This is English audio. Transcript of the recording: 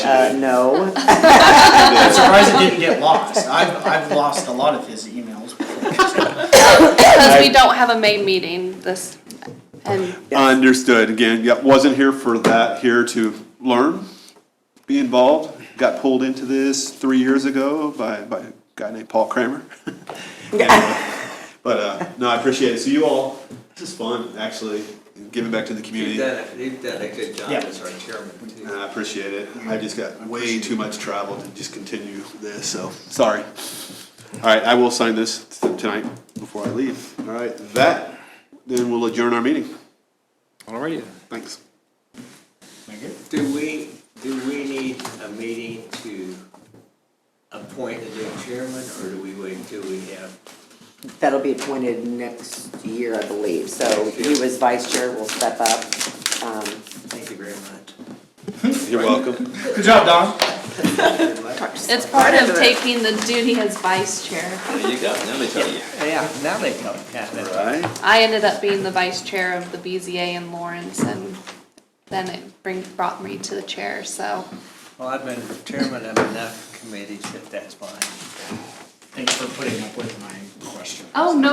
Uh, no. I'm surprised it didn't get lost. I've, I've lost a lot of his emails before. Because we don't have a May meeting this, and Understood, again, yeah, wasn't here for that, here to learn, be involved. Got pulled into this three years ago by, by a guy named Paul Kramer. And, uh, But, uh, no, I appreciate it, so you all, this is fun, actually, giving back to the You've community. done, a- you've done a good job Yeah. as our chairman too. And I appreciate it, Uh, I just got way too much travel to just continue this, so, sorry. All right, I will sign this tonight before I leave. All right, that, then we'll adjourn our meeting, Alrighty. thanks. Do we, do we need a meeting to appoint a new chairman, or do we wait until we have? That'll be appointed next year, I believe, so you as vice chair will step up. Um, Thank you very much. You're welcome. Good job, Don. Good luck. it's part of taking the duty as vice chair. There you go, now they tell you. Yeah, now they come. Yeah, that's- Right. I ended up being the vice chair of the BZA in Lawrence, and then it bring, brought me to the chair, so. Well, I've been chairman of enough committees that that's fine. Thanks for putting up with my question. Oh, no